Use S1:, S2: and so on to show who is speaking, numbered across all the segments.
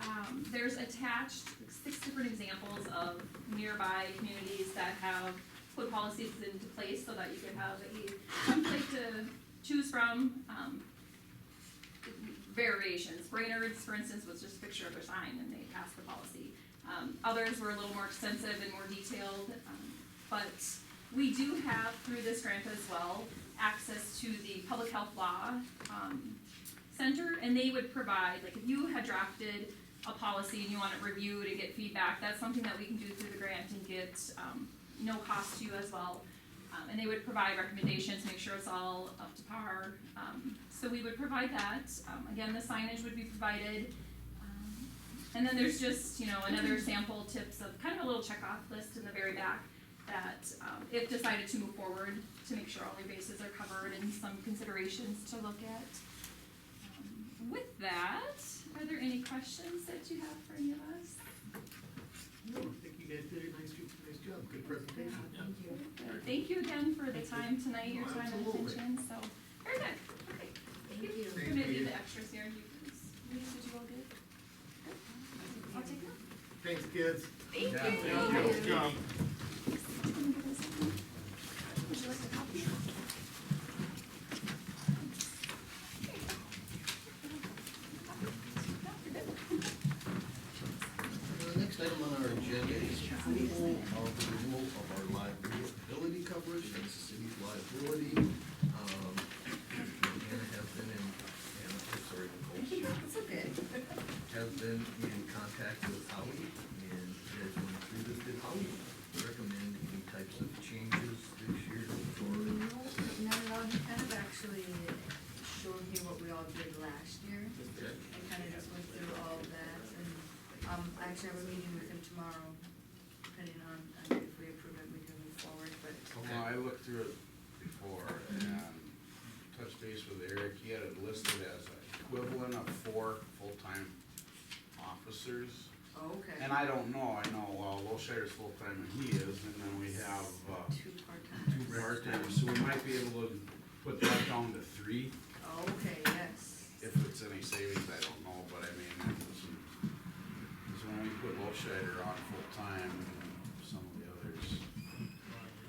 S1: um, there's attached six different examples of nearby communities that have put policies into place so that you could have a template to choose from, um, variations. Brainerd's, for instance, was just a picture of a sign and they passed the policy. Um, others were a little more extensive and more detailed, um, but we do have through this grant as well, access to the public health law, um, center, and they would provide, like, if you had drafted a policy and you want it reviewed and get feedback, that's something that we can do through the grant and get, um, no cost to you as well. Um, and they would provide recommendations, make sure it's all up to par, um, so we would provide that, um, again, the signage would be provided. Um, And then there's just, you know, another sample tips of kind of a little checkoff list in the very back that, um, if decided to move forward, to make sure all your bases are covered and some considerations to look at. Um, With that, are there any questions that you have for any of us?
S2: No, I think you guys did a nice, nice job, good presentation.
S1: Thank you again for the time tonight, your
S2: Oh,
S1: time and
S2: absolutely.
S1: attention, so, very good, okay. Thank you.
S2: Thank
S1: We're gonna
S2: you.
S1: do the extras here, you guys, Denise, did you all good? I'll take them.
S2: Thanks, kids.
S1: Thank you.
S2: Thank you.
S1: Would you like a copy?
S3: The next item on our agenda is approval of the renewal of our liability coverage, that's the city's liability. Um, Hannah has been in, Hannah, I'm sorry, Nicole,
S4: That's okay.
S3: has been in contact with Howie, and has gone through this, did Howie recommend any types of changes this year
S4: No,
S3: or?
S4: not at all, he kind of actually showed me what we all did last year.
S3: Okay.
S4: I kind of just went through all of that, and, um, I actually have a meeting with him tomorrow, depending on, on if we approve it, we can move forward, but.
S5: Well, I looked through it before and touched base with Eric, he had it listed as equivalent of four full-time officers.
S4: Oh, okay.
S5: And I don't know, I know, well, Wilshire's full-time and he is, and then we have, uh,
S4: Two part-timers.
S5: two part-time, so we might be able to put that down to three,
S4: Oh, Okay, yes.
S5: if it's any savings, I don't know, but I mean, it was, because when we put Wilshire on full-time, and some of the others,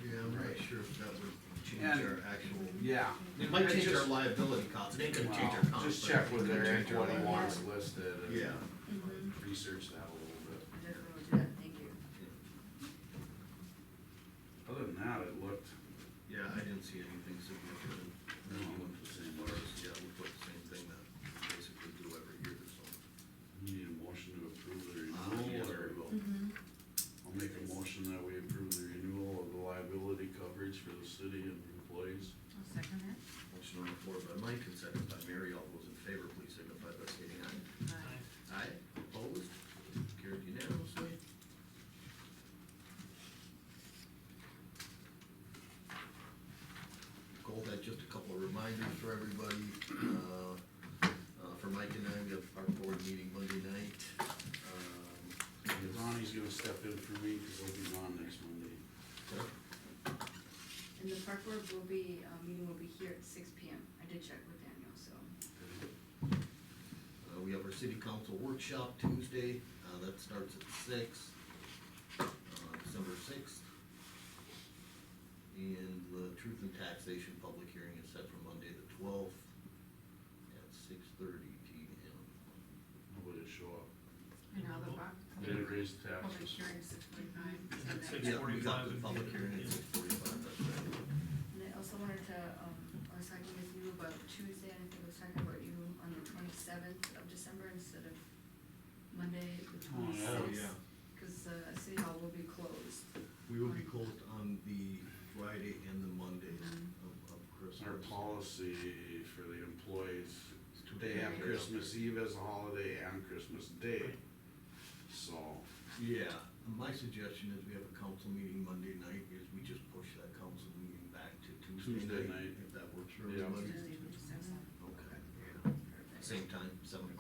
S3: Yeah, I'm not sure if that would change our actual.
S5: yeah.
S3: It might change our
S5: Just-
S3: liability costs, it ain't gonna change our
S5: Well,
S3: costs.
S5: Just check with Eric what he
S4: liability.
S5: wants listed and
S3: Yeah.
S4: Mm-hmm.
S5: research that a little bit.
S4: I definitely will do that, thank you.
S5: Other than that, it looked,
S3: Yeah, I didn't see anything significant.
S5: No.
S3: You went to the same bars, yeah, we put the same thing that we basically do every year this summer.
S5: you need a motion to approve
S3: Uh,
S5: the
S3: yes,
S5: renewal or?
S3: we will.
S4: Mm-hmm.
S5: I'll make a motion that we approve the renewal of the liability coverage for the city and employees.
S4: I'll second that.
S3: Motion on the floor by Mike and second by Mary, all those in favor, please signify by stating aye.
S4: Aye.
S3: Aye. Opposed? Carried unanimously. Nicole had just a couple of reminders for everybody, uh, uh, for Mike and I, we have our board meeting Monday night. Um, it's-
S5: Ronnie's gonna step in for me, cause he'll be gone next Monday.
S3: Um,
S4: And the park board will be, uh, meeting will be here at six P M. I did check with Daniel, so.
S3: Uh, we have our city council workshop Tuesday, uh, that starts at six, uh, December sixth. And the truth and taxation public hearing is set for Monday the twelfth at six thirty P M.
S5: Nobody show up.
S6: And how the buck,
S5: They didn't raise the
S6: public
S5: taxes.
S6: hearing six forty-five.
S3: Yeah, we got the public hearing at six forty-five, that's right.
S4: And I also wanted to, um, I was talking with you about Tuesday, and I think I was talking about you on the twenty-seventh of December instead of Monday, the
S5: Oh, yeah. Oh,
S4: twenty-sixth. Cause, uh, City Hall will be closed.
S3: We will be closed on the Friday and the Monday of, of Christmas.
S5: Our policy for the employees,
S3: It's two
S5: they have
S3: days.
S5: Christmas Eve as a holiday and Christmas Day. So,
S3: Yeah, my suggestion is we have a council meeting Monday night, is we just push that council meeting back to Tuesday
S5: Tuesday
S3: night,
S5: night.
S3: if that works for
S5: Yeah.
S3: everybody.
S4: Tuesday, the 27th.
S3: Okay,
S4: Perfect.
S3: same time, seven